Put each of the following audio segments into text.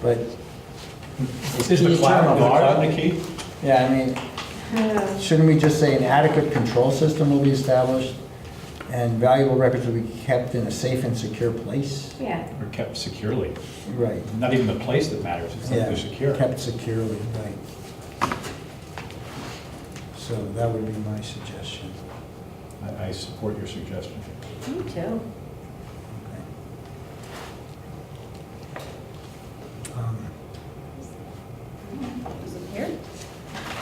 but. Is the cloud guard the key? Yeah, I mean, Uh, Shouldn't we just say an adequate control system will be established and valuable records will be kept in a safe and secure place? Yeah, Or kept securely? Right. Not even the place that matters, it's that Yeah, they're secure. Kept securely, right. So that would be my suggestion. I, I support your suggestion. me too. Okay. Um, Is it here?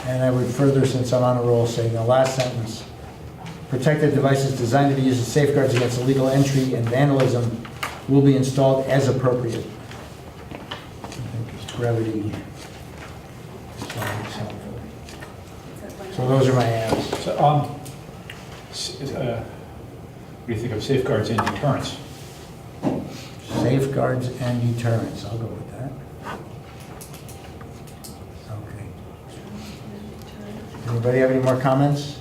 And I would further, since I'm on a roll, say the last sentence, protective devices designed to be used as safeguards against illegal entry and vandalism will be installed as appropriate. I think Brevity is always helpful. So those are my adds. So, um, s- uh, what do you think of safeguards and deterrence? Safeguards and deterrence, I'll go with that. Okay. Anybody have any more comments?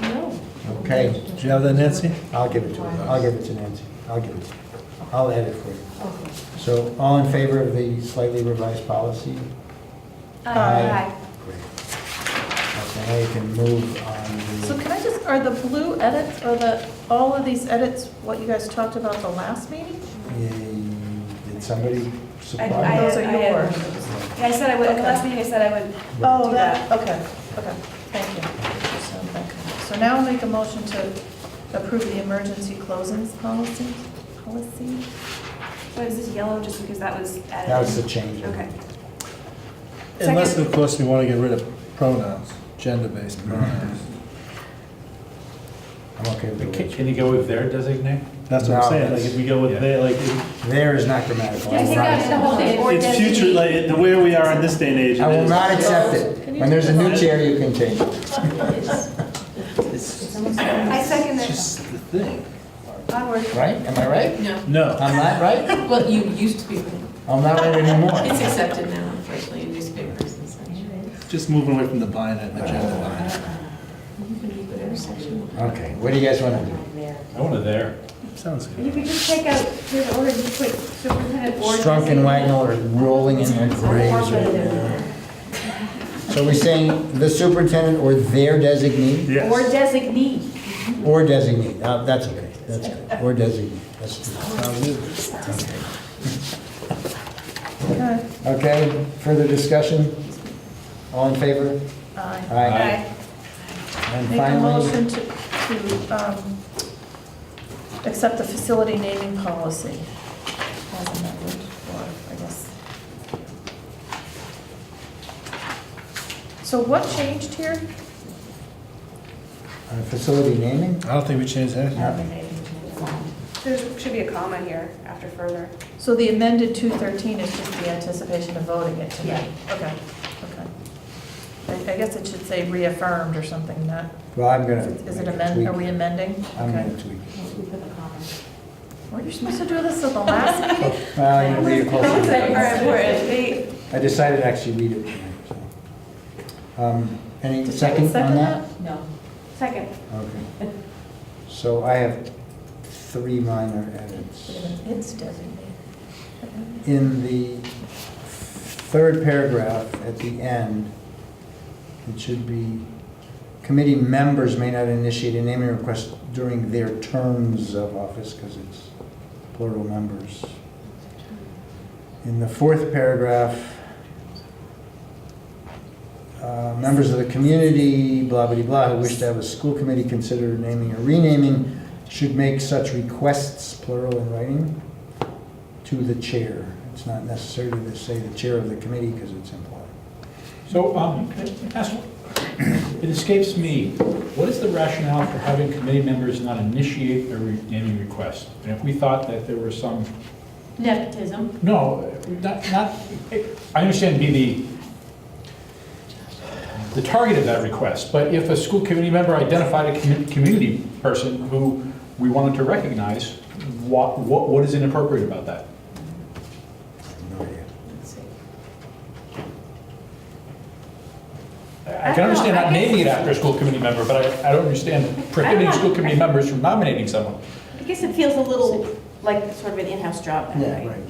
No. Okay. Do you have that, Nancy? I'll give it to her. I'll give it to Nancy. I'll give it to her. I'll edit for you. So all in favor of the slightly revised policy? Uh, Aye. Great. Okay, now you can move So on can I just, are the blue edits, are the, all of these edits what you guys talked about the last meeting? the, did somebody I, supply? I, Those I are had- yours. I said I would, at the last meeting I said I would. Oh, do that, okay, okay, thank you. So, okay. So now I'll make a motion to approve the emergency closings policy, policy? What is this yellow, just because that was added? That was the change. Okay. Unless, Unless, of of course, we want to get rid of pronouns, gender-based Mm-hmm. pronouns. I'm okay But with Can it. can you go with their designate? That's what No, I'm saying, like, that's- if we go with they, like, it- There is not grammatical. Yeah, I take will out the not- whole thing. or it's future, designate. like, it- the way we are in this day and age. I it will is- not accept it. Can you When there's a do new that? chair, you can change it. I second It's that. just the thing. Onward. Right? Am I right? No, I'm not right? Well, you used to be, I'm not right it's anymore. accepted now, unfortunately, in newspapers and such. just moving away from the binary, the gender binary. You can be whatever section. Okay, what do you guys want to do? I want a there. Sounds You good. could just take out, here's the order, just put superintendent or. Strunk and designate. Wagnall are rolling in their graves right now. So we're saying the superintendent or their designee? Or Yes. designee. Or designee, Uh, that's okay, that's okay, or designee, that's, Okay. okay, further discussion? All in favor? Aye. Aye. Okay. And Make a finally, motion to, to, um, accept the facility naming policy. As amended, or, I guess. So what changed here? uh, facility naming? I don't think we changed anything. There should be a comma here after further. So the amended 213 is just the anticipation of voting it tonight? Okay, okay. I, I guess it should say reaffirmed or something, not, Well, I'm gonna. is make it a amend, tweak. are we amending? I'm Okay. gonna tweak. Um, it. Were you supposed to do this at the last meeting? Oh, Well, you read it closer. Or important. They- I decided to actually read it tonight, so. Um, Any second on that? No. Second. Okay. So I have three minor edits. It's designated. In the third paragraph at the end, it should be, committee members may not initiate a naming request during their terms of office, because it's plural members. In the fourth paragraph, uh, members of the community, blah, blah, blah, who wish to have a school committee consider naming or renaming should make such requests, plural in writing, to the chair. It's not necessary to say the chair of the committee because it's implied. So, um, can I ask- it escapes me, what is the rationale for having committee members not initiate a re- naming request? And if we thought that there were some Nepotism. No, not, not, I understand to be the, the target of that request, but if a school committee member identified a commu- community person who we wanted to recognize, what, what, what is inappropriate about that? I have No idea. I can understand not naming it after a school committee member, but I, I don't understand prohibiting school committee members from nominating someone. I guess it feels a little like sort of an in-house job. in a way. Right.